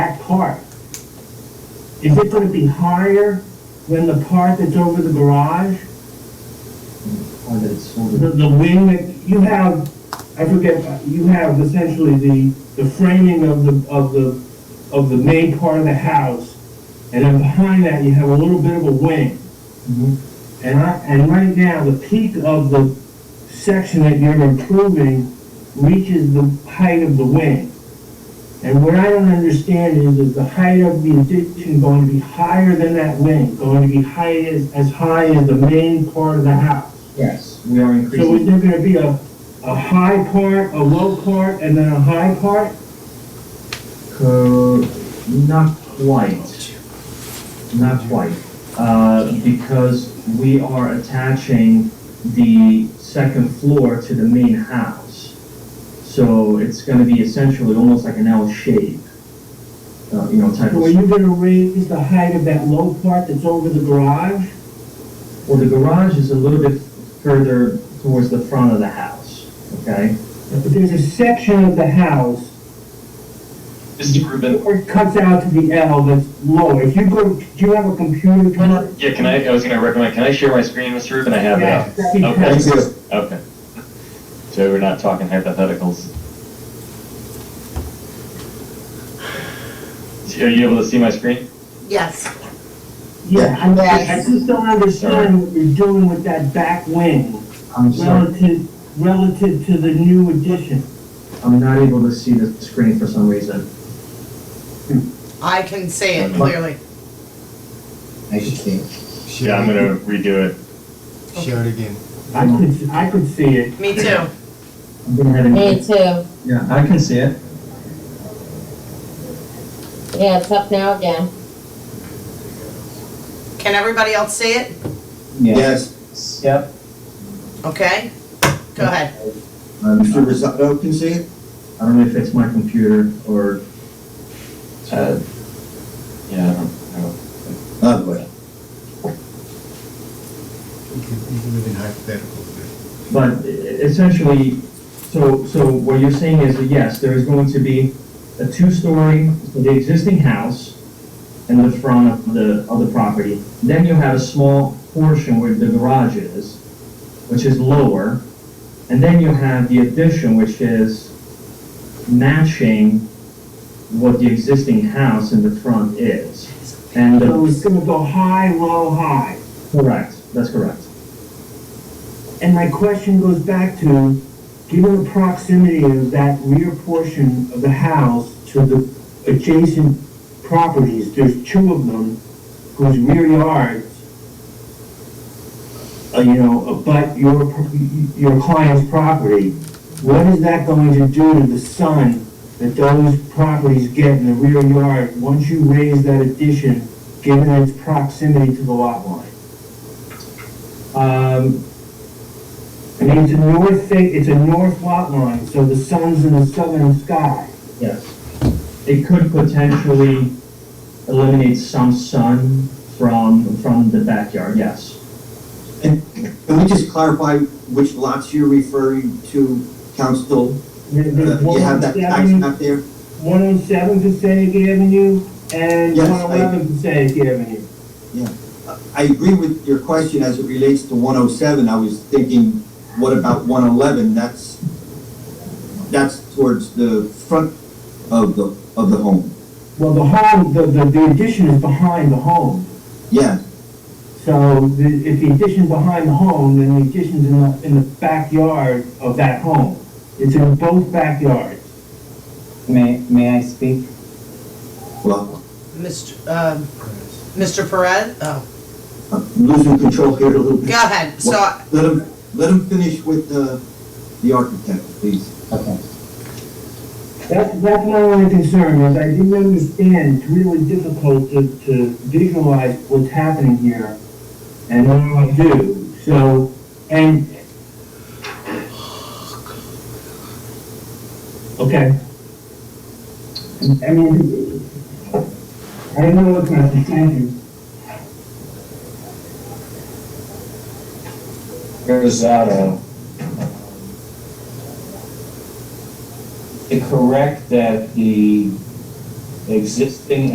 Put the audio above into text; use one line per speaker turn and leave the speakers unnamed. part? Is it gonna be higher than the part that's over the garage?
Or that it's sort
The,
of,
the wing that, you have, I forget, you have essentially the, the framing of the, of the, of the main part of the house, and then behind that, you have a little bit of a wing. And I, and right now, the peak of the section that you're improving reaches the height of the wing. And what I don't understand is, is the height of the addition going to be higher than that wing, going to be high as, as high as the main part of the house?
yes, we are
So is
increasing,
there gonna be a, a high part, a low part, and then a high part?
co- not quite. Not quite, uh, because we are attaching the second floor to the main house. So it's gonna be essentially almost like an L shape, uh, you know, type
So are
of,
you gonna raise the height of that low part that's over the garage?
well, the garage is a little bit further towards the front of the house, okay?
But there's a section of the house
Mr. Rubin,
Or it cuts out to the L that's lower. If you go, do you have a computer? Tom?
yeah, can I, I was gonna recommend, can I share my screen, Mr. Rubin? I have it
Yeah,
up.
that'd be
Okay.
perfect.
Okay. So we're not talking hypotheticals. Are you able to see my screen?
Yes,
Yeah, I
Yes.
I just don't understand what you're doing with that back wing
I'm sorry.
relative, relative to the new addition.
I'm not able to see the screen for some reason.
I can see it clearly.
I should think.
Yeah, I'm gonna redo it.
Share it again.
I could, I could see it.
Me too.
I'm gonna have
Me
it.
too.
Yeah, I can see it.
Yeah, it's up now again.
Can everybody else see it?
Yes.
Yep.
Okay? Go ahead.
Um,
Mr. Rosato can see it?
I don't know if it's my computer or.
Uh, Yeah, I don't, I don't,
Lovely.
You can, you can live in hypotheticals there.
But essentially, so, so what you're saying is that yes, there is going to be a two-story, the existing house in the front of the, of the property. Then you have a small portion where the garage is, which is lower. And then you have the addition, which is matching what the existing house in the front is. And,
So
the-
it's gonna go high, low, high.
correct, that's correct.
And my question goes back to, given the proximity of that rear portion of the house to the adjacent properties, there's two of them whose rear yards, uh, you know, abut your, pro- your client's property, what is that going to do to the sun that those properties get in the rear yard once you raise that addition, given its proximity to the lot line?
Um,
I mean, it's a north thing, it's a north lot line, so the sun's in the southern sky.
Yes. It could potentially eliminate some sun from, from the backyard, yes.
And can we just clarify which lots you're referring to, Council?
There-
Uh,
There's
You
one
have
on
that tax
seven,
map there?
one on seven Passaic Avenue and
Yes,
one
I-
eleven Passaic Avenue.
Uh, I agree with your question as it relates to 107. I was thinking, what about 111? That's, that's towards the front of the, of the home.
Well, the home, the, the, the addition is behind the home.
Yeah,
So the, if the addition's behind the home, then the addition's in the, in the backyard of that home. It's in both backyards.
May, may I speak?
well,
Mr. um, Mr. Perez? Oh,
I'm losing control here a little bit.
go ahead. So, I-
Let him, let him finish with the, the architect, please.
Okay.
That's, that's my only concern, is I didn't understand, it's really difficult to, to visualize what's happening here, and now I do, so, and... Okay. I mean, I don't know what kind of, thank you.
Rosado. Is it correct that the
existing